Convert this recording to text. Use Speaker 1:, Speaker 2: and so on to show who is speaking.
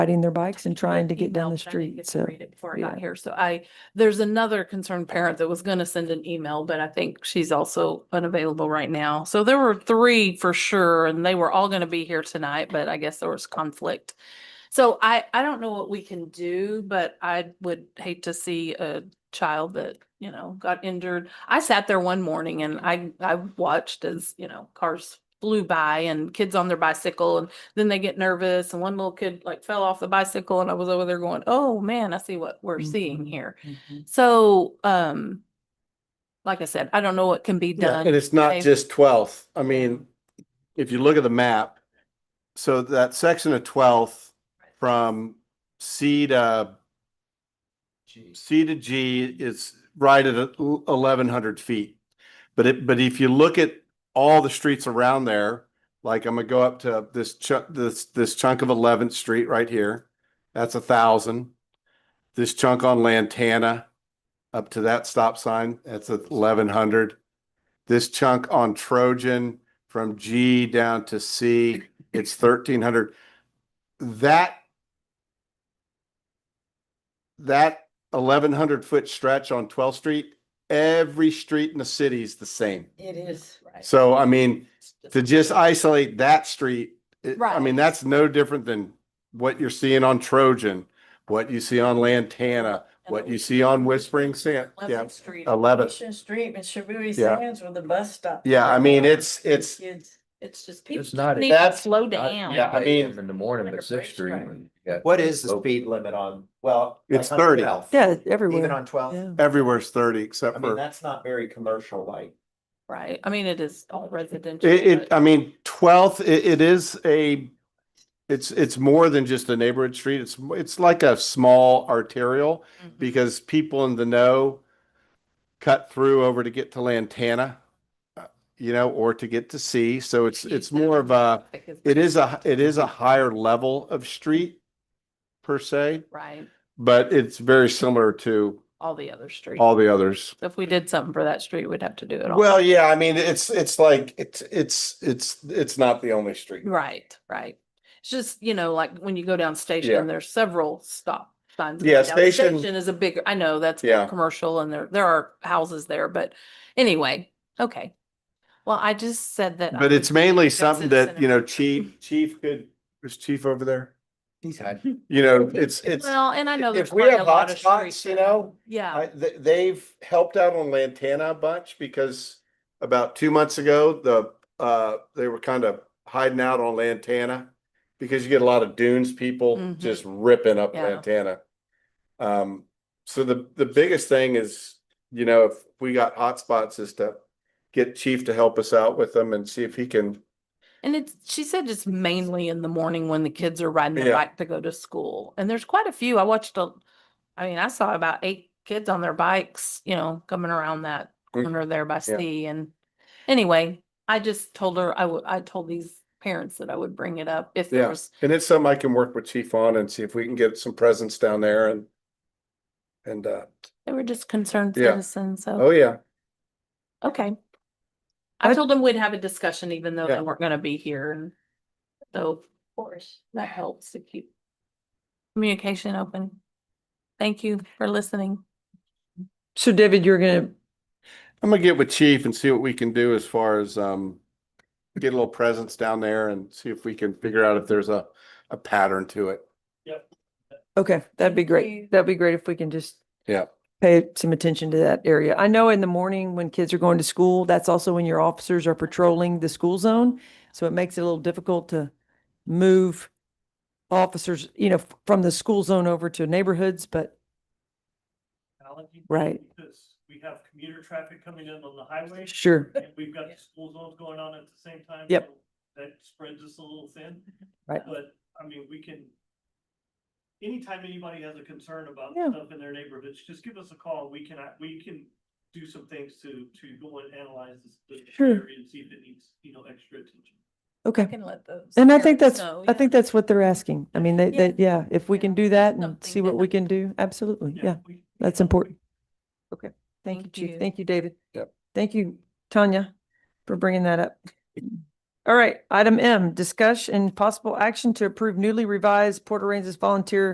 Speaker 1: riding their bikes and trying to get down
Speaker 2: email,
Speaker 1: the
Speaker 2: but I
Speaker 1: street.
Speaker 2: didn't get to
Speaker 1: So,
Speaker 2: read it Before I got
Speaker 1: yeah.
Speaker 2: here, so I, there's another concerned parent that was gonna send an email, but I think she's also unavailable right now. So there were three for sure, and they were all gonna be here tonight, but I guess there was conflict. So I, I don't know what we can do, but I would hate to see a child that, you know, got injured. I sat there one morning and I, I watched as, you know, cars flew by and kids on their bicycle and then they get nervous and one little kid like fell off the bicycle and I was over there going, oh man, I see what we're
Speaker 3: Mm-hmm.
Speaker 2: seeing here. So, um, like I said, I don't know what can be
Speaker 3: Yeah, And
Speaker 2: done.
Speaker 3: it's not
Speaker 2: Okay.
Speaker 3: just twelfth. I mean, if you look at the map, so that section of twelfth from C to C to G is right at eleven hundred feet. But it, but if you look at all the streets around there, like I'm gonna go up to this chunk, this, this chunk of Eleventh Street right here. That's a thousand. This chunk on Lantana, up to that stop sign, that's eleven hundred. This chunk on Trojan from G down to C, it's thirteen hundred. That that eleven hundred foot stretch on Twelfth Street, every street in the city is the same.
Speaker 4: It is, right.
Speaker 3: So I mean, to just isolate that street, it- I
Speaker 2: Right.
Speaker 3: mean, that's no different than what you're seeing on Trojan, what you see on Lantana, what you see on Whispering Sand. Yeah,
Speaker 2: 11th Street,
Speaker 3: eleventh.
Speaker 4: Mission Street and Shabooty
Speaker 3: Yeah.
Speaker 4: Sands with the bus stop.
Speaker 3: Yeah, I mean, it's, it's,
Speaker 4: Kids.
Speaker 2: It's just people
Speaker 5: It's not.
Speaker 2: need to
Speaker 3: That's-
Speaker 2: slow
Speaker 5: not-
Speaker 2: down.
Speaker 3: yeah, I mean-
Speaker 5: In the morning, but Sixth Street.
Speaker 4: Right.
Speaker 5: when you got-
Speaker 6: What is the
Speaker 5: Oh,
Speaker 6: speed limit on, well?
Speaker 3: It's
Speaker 6: like on
Speaker 3: 30.
Speaker 6: 12th?
Speaker 1: Yeah, everywhere.
Speaker 6: Even on
Speaker 1: Yeah.
Speaker 6: twelve?
Speaker 3: everywhere's thirty except
Speaker 6: I mean,
Speaker 3: for,
Speaker 6: that's not very commercial like.
Speaker 2: Right. I mean, it is all residential.
Speaker 3: it, it,
Speaker 2: but-
Speaker 3: I mean, Twelfth, it, it is a, it's, it's more than just a neighborhood street. It's, it's like a small arterial
Speaker 2: Mhm.
Speaker 3: because people in the know cut through over to get to Lantana, uh, you know, or to get to C. So it's,
Speaker 2: Jeez,
Speaker 3: it's
Speaker 2: that
Speaker 3: more of a,
Speaker 2: traffic is
Speaker 3: it is a, it is a higher level of street per se,
Speaker 2: Right,
Speaker 3: but it's very similar to
Speaker 2: all the other streets.
Speaker 3: all the others.
Speaker 2: So If we did something for that street, we'd have to do it all.
Speaker 3: Well, yeah, I mean, it's, it's like, it's, it's, it's, it's not the only street.
Speaker 2: Right, right. It's just, you know, like when you go down
Speaker 3: Yeah.
Speaker 2: station, there's several stop signs.
Speaker 3: Yeah,
Speaker 2: going down. The
Speaker 3: Station-
Speaker 2: Is a bigger, I know that's
Speaker 3: Yeah.
Speaker 2: more commercial and there, there are houses there, but anyway, okay. Well, I just said that. I
Speaker 3: But
Speaker 2: would
Speaker 3: it's mainly
Speaker 2: that's
Speaker 3: something
Speaker 2: in
Speaker 3: that, you know,
Speaker 2: Cinnamon.
Speaker 3: chief, chief could, was chief over there?
Speaker 5: He's had.
Speaker 3: You know, it's, it's.
Speaker 2: Well, and I know there's
Speaker 3: If we
Speaker 2: quite a
Speaker 3: have
Speaker 2: lot of streets.
Speaker 3: hotspots, you know,
Speaker 2: Yeah,
Speaker 3: I, th- they've helped out on Lantana a bunch because about two months ago, the, uh, they were kind of hiding out on Lantana. Because you get a lot of dunes people
Speaker 2: Mhm.
Speaker 3: just ripping up
Speaker 2: Yeah.
Speaker 3: Lantana. Um, so the, the biggest thing is, you know, if we got hotspots is to get chief to help us out with them and see if he can,
Speaker 2: and it's, she said it's mainly in the morning when the kids are riding
Speaker 3: Yeah.
Speaker 2: their bike to go to school. And there's quite a few. I watched a, I mean, I saw about eight kids on their bikes, you know, coming around that
Speaker 3: Mm.
Speaker 2: corner there by
Speaker 3: Yeah.
Speaker 2: C and anyway, I just told her, I would, I told these parents that I would bring it up if
Speaker 3: Yeah.
Speaker 2: there was,
Speaker 3: and it's something I can work with chief on and see if we can get some presence down there and. And, uh,
Speaker 2: they were just concerned
Speaker 3: Yeah.
Speaker 2: citizens,
Speaker 3: oh
Speaker 2: so,
Speaker 3: yeah,
Speaker 2: okay. I told them we'd have a discussion even though
Speaker 3: Yeah.
Speaker 2: they weren't gonna be here and so
Speaker 4: Of course.
Speaker 2: that helps to keep communication open. Thank you for listening.
Speaker 1: So David, you're gonna,
Speaker 3: I'm gonna get with chief and see what we can do as far as, um, get a little presence down there and see if we can figure out if there's a, a pattern to it.
Speaker 1: okay, that'd be
Speaker 4: Thank you.
Speaker 1: great. That'd be great if we can just
Speaker 3: Yeah.
Speaker 1: pay some attention to that area. I know in the morning when kids are going to school, that's also when your officers are patrolling the school zone. So it makes it a little difficult to move officers, you know, f- from the school zone over to neighborhoods, but
Speaker 7: technology.
Speaker 1: Right.
Speaker 7: Because we have commuter traffic coming in on the highway.
Speaker 1: sure.
Speaker 7: And we've got the school zones going on at the same time.
Speaker 1: Yep.
Speaker 7: so That spreads us a little thin.
Speaker 1: Right.
Speaker 7: But, I mean, we can, anytime anybody has a concern about
Speaker 1: Yeah.
Speaker 7: stuff in their neighborhoods, just give us a call. We can, we can do some things to, to go and analyze this. this
Speaker 1: Sure.
Speaker 7: area And see if it needs, you know, extra attention.
Speaker 1: Okay.
Speaker 2: Can let those.
Speaker 1: And I think that's,
Speaker 2: know,
Speaker 1: I think
Speaker 2: yeah.
Speaker 1: that's what they're asking. I mean, they,
Speaker 2: Yeah.
Speaker 1: they, yeah, if we
Speaker 2: Yeah.
Speaker 1: can do that and
Speaker 2: Something
Speaker 1: see
Speaker 2: to
Speaker 1: what we
Speaker 2: help.
Speaker 1: can do, absolutely, yeah.
Speaker 7: we- we
Speaker 1: that's
Speaker 7: can-
Speaker 1: important. Okay, thank you,
Speaker 2: Thank
Speaker 1: Chief.
Speaker 2: you.
Speaker 1: Thank you, David.
Speaker 3: Yep.
Speaker 1: Thank you, Tanya, for bringing that up. All right, item M, discussion and possible action to approve newly revised Port Aransas volunteer